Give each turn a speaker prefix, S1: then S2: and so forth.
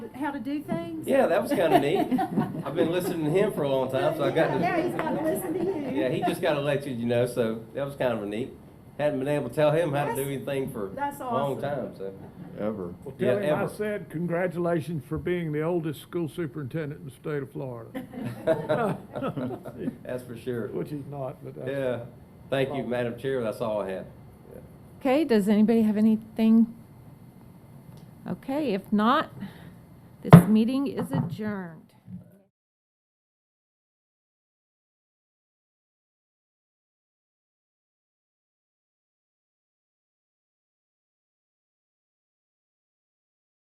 S1: how to do things?
S2: Yeah, that was kinda neat. I've been listening to him for a long time, so I got to.
S3: Now he's gotta listen to you.
S2: Yeah, he just got elected, you know, so that was kind of neat. Hadn't been able to tell him how to do
S3: That's-
S2: anything for
S3: that's
S2: a long
S3: awesome.
S2: time, so.
S4: ever.
S5: Well,
S2: Yeah,
S5: tell him I
S2: ever.
S5: said, congratulations for being the oldest school superintendent in the state of Florida.
S2: That's for sure.
S5: Which he's not, but that's.
S2: Yeah. Thank you, Madam Chair, that's all I have. Yeah.
S6: Okay, does anybody have anything? Okay, if not, this meeting is adjourned.